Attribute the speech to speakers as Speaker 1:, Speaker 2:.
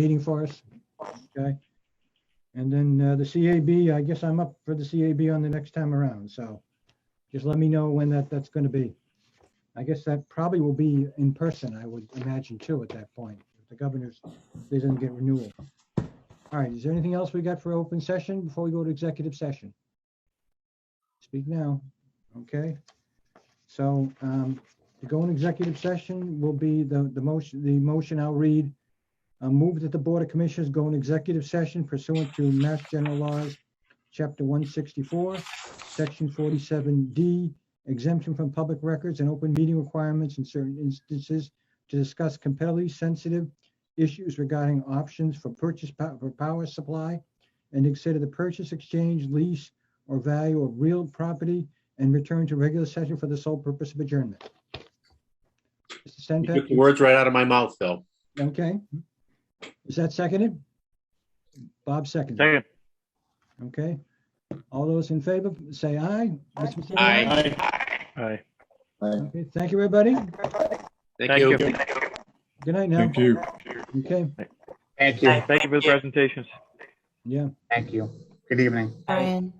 Speaker 1: meeting for us. Okay. And then uh, the CAB, I guess I'm up for the CAB on the next time around, so just let me know when that, that's going to be. I guess that probably will be in person, I would imagine too, at that point. If The governor's, they didn't get renewal. All right, is there anything else we got for open session before we go to executive session? Speak now, okay? So um, to go in executive session will be the, the motion, the motion I'll read. Uh, Move that the Board of Commissioners go in executive session pursuant to Mass General Laws, Chapter 164, Section 47D, exemption from public records and open meeting requirements in certain instances to discuss competitively sensitive issues regarding options for purchase pow- for power supply and to consider the purchase, exchange, lease, or value of real property and return to regular session for the sole purpose of adjournment. Mr.
Speaker 2: You took
Speaker 1: Stenpak?
Speaker 2: the words right out of my mouth, Phil.
Speaker 1: Okay. Is that seconded? Bob seconded.
Speaker 3: Second.
Speaker 1: Okay. All those in favor, say aye. Mr. Massey,
Speaker 2: Aye.
Speaker 3: Aye.
Speaker 1: Okay, Thank you, everybody.
Speaker 2: Thank you.
Speaker 1: Good night now.
Speaker 4: Thank you.
Speaker 1: Okay,
Speaker 5: Thank you.
Speaker 3: Thank you for the presentations.
Speaker 1: yeah.
Speaker 5: Thank you. Good evening.
Speaker 6: Brian.